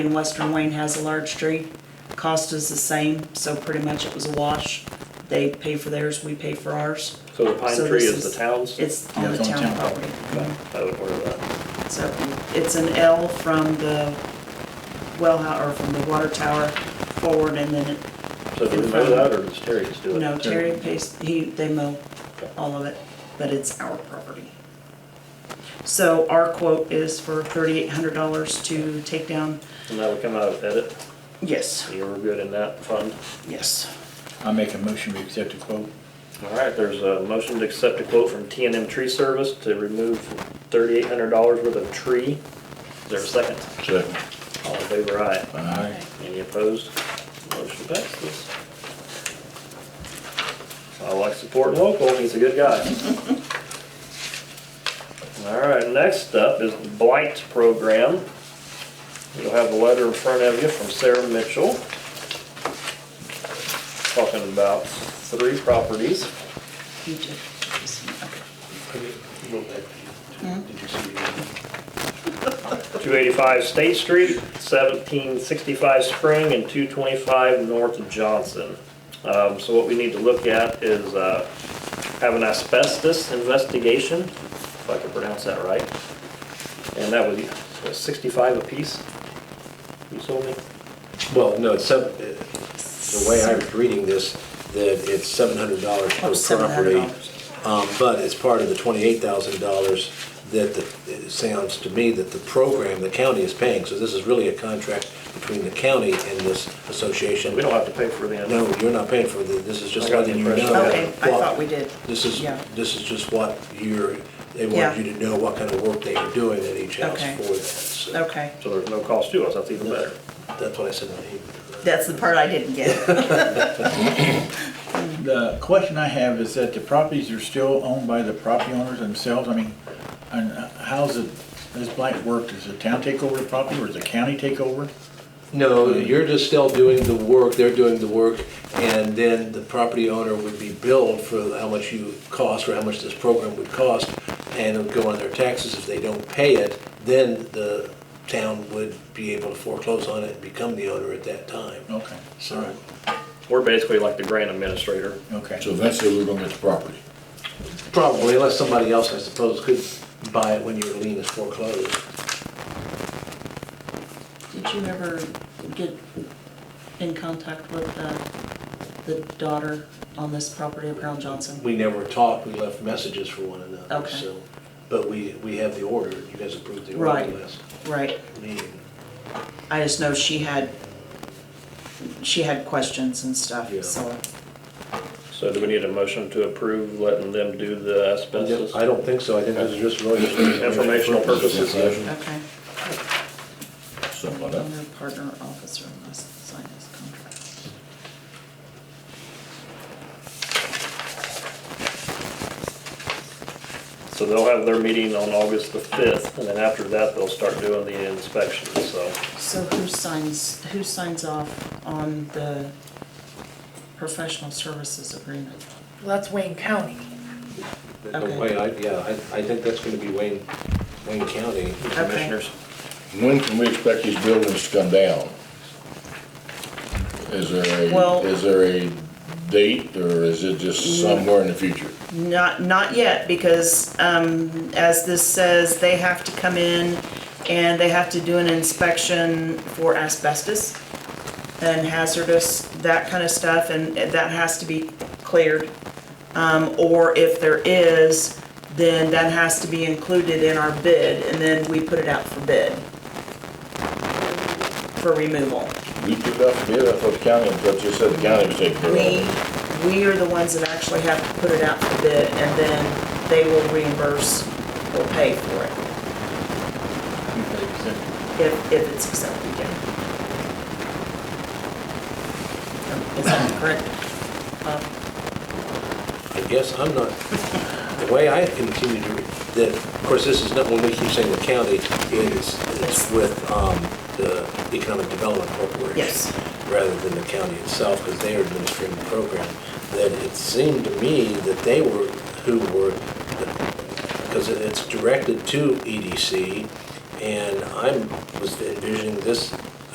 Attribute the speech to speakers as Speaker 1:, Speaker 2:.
Speaker 1: And Western Wayne has a large tree. Cost is the same, so pretty much it was a wash. They pay for theirs, we pay for ours.
Speaker 2: So the pine
Speaker 1: So
Speaker 2: tree
Speaker 1: this
Speaker 2: is
Speaker 1: is-
Speaker 2: the town's?
Speaker 1: It's on the
Speaker 3: It's on
Speaker 1: town
Speaker 3: town
Speaker 1: property.
Speaker 2: I would order that.
Speaker 1: So it's an L from the well, hou- or from the water tower forward and then, it-
Speaker 2: So do we know that, or does Terry just do it?
Speaker 1: no, Terry pays, he, they mow all of it, but it's our property. So our quote is for thirty-eight hundred dollars to take down,
Speaker 2: And that'll come out of edit,
Speaker 1: yes,
Speaker 2: you were good in that fund.
Speaker 1: yes.
Speaker 3: I make a motion to accept the quote.
Speaker 2: All right, there's a motion to accept a quote from T and M Tree Service to remove thirty-eight hundred dollars worth of tree. Is there a second?
Speaker 3: Second.
Speaker 2: All in favor, aye.
Speaker 3: Aye.
Speaker 2: Any opposed? Motion passes. I like supporting local, he's a good guy. All right, next up is the Blight Program. You'll have a letter in front of you from Sarah Mitchell. Talking about three properties.
Speaker 1: You did. Okay.
Speaker 4: Well,
Speaker 2: 285 State Street, 1765 Spring, and 225 North Johnson. Um, So what we need to look at is uh, have an asbestos investigation, if I can pronounce that right. And that was what, 65 apiece, you told me?
Speaker 4: no, it's seven, the way I was reading this, that it's seven hundred dollars
Speaker 1: Oh,
Speaker 4: per property.
Speaker 1: $700.
Speaker 4: Um, but it's part of the twenty-eight thousand dollars that the, it sounds to me that the program, the county is paying. So this is really a contract between the county and this association.
Speaker 2: We don't have to pay for the...
Speaker 4: No, you're not paying for the, this is just
Speaker 2: I got the
Speaker 4: letting you know.
Speaker 2: impression.
Speaker 1: Okay, I
Speaker 4: what-
Speaker 1: thought we did.
Speaker 4: This is,
Speaker 1: Yeah.
Speaker 4: this is just what you're, they
Speaker 1: Yeah.
Speaker 4: want you to know what kind of work they are doing at each house
Speaker 1: Okay.
Speaker 4: for that. So
Speaker 1: Okay,
Speaker 2: So there's no cost to us, that's even better.
Speaker 4: That's what I said. I hate-
Speaker 1: that's the part I didn't get.
Speaker 3: The question I have is that the properties are still owned by the property owners themselves? I mean, and how's it, this blight work? Does the town take over the property or does the county take over?
Speaker 4: No, you're just still doing the work, they're doing the work, and then the property owner would be billed for how much you cost or how much this program would cost, and it would go on their taxes. If they don't pay it, then the town would be able to foreclose on it and become the owner at that time.
Speaker 3: Okay, all
Speaker 4: So,
Speaker 3: right,
Speaker 2: We're basically like the grant administrator.
Speaker 5: So
Speaker 3: okay.
Speaker 5: eventually we're gonna get the property.
Speaker 4: probably unless somebody else, I suppose, could buy it when your lien is foreclosed.
Speaker 1: Did you ever get in contact with the, the daughter on this property of Earl Johnson?
Speaker 4: We never talked, we left messages for one another,
Speaker 1: Okay.
Speaker 4: so, but we, we have the order, you guys approved the order
Speaker 1: Right.
Speaker 4: last
Speaker 1: Right,
Speaker 4: meeting.
Speaker 1: I just know she had, she had questions and stuff, so.
Speaker 2: So do we need a motion to approve letting them do the asbestos?
Speaker 4: I don't think so, I think this is just really just.
Speaker 2: Informational purposes.
Speaker 1: Okay.
Speaker 5: Something like that.
Speaker 1: Owner, partner, officer must sign this contract.
Speaker 2: So they'll have their meeting on August the 5th, and then after that, they'll start doing the inspections, so.
Speaker 1: So who signs, who signs off on the professional services agreement?
Speaker 6: Well, that's Wayne County.
Speaker 1: Okay.
Speaker 4: The way I, yeah, I, I think that's gonna be Wayne, Wayne County.
Speaker 2: Commissioners,
Speaker 5: When can we expect these buildings to come down? Is there
Speaker 1: Well-
Speaker 5: a, is there a date, or is it just somewhere in the future?
Speaker 1: Not, not yet, because, um, as this says, they have to come in and they have to do an inspection for asbestos and hazardous, that kind of stuff, and that has to be cleared. Um, or if there is, then that has to be included in our bid, and then we put it out for bid for removal.
Speaker 5: We took up the bid, I thought the county, I thought you said the county was taking care of
Speaker 1: We,
Speaker 5: it.
Speaker 1: we are the ones that actually have to put it out for bid, and then they will reimburse or pay for it if, if it's accepted, yeah. Is that correct? Bob?
Speaker 4: I guess I'm not, the way I continue to read, that, of course, this is not, when we keep saying the county, it's, it's with, um, the Economic Development Corporation.
Speaker 1: Yes.
Speaker 4: Rather than the county itself, because they are administering the program, that it seemed to me that they were, who were, because E it's directed to EDC, and I was envisioning this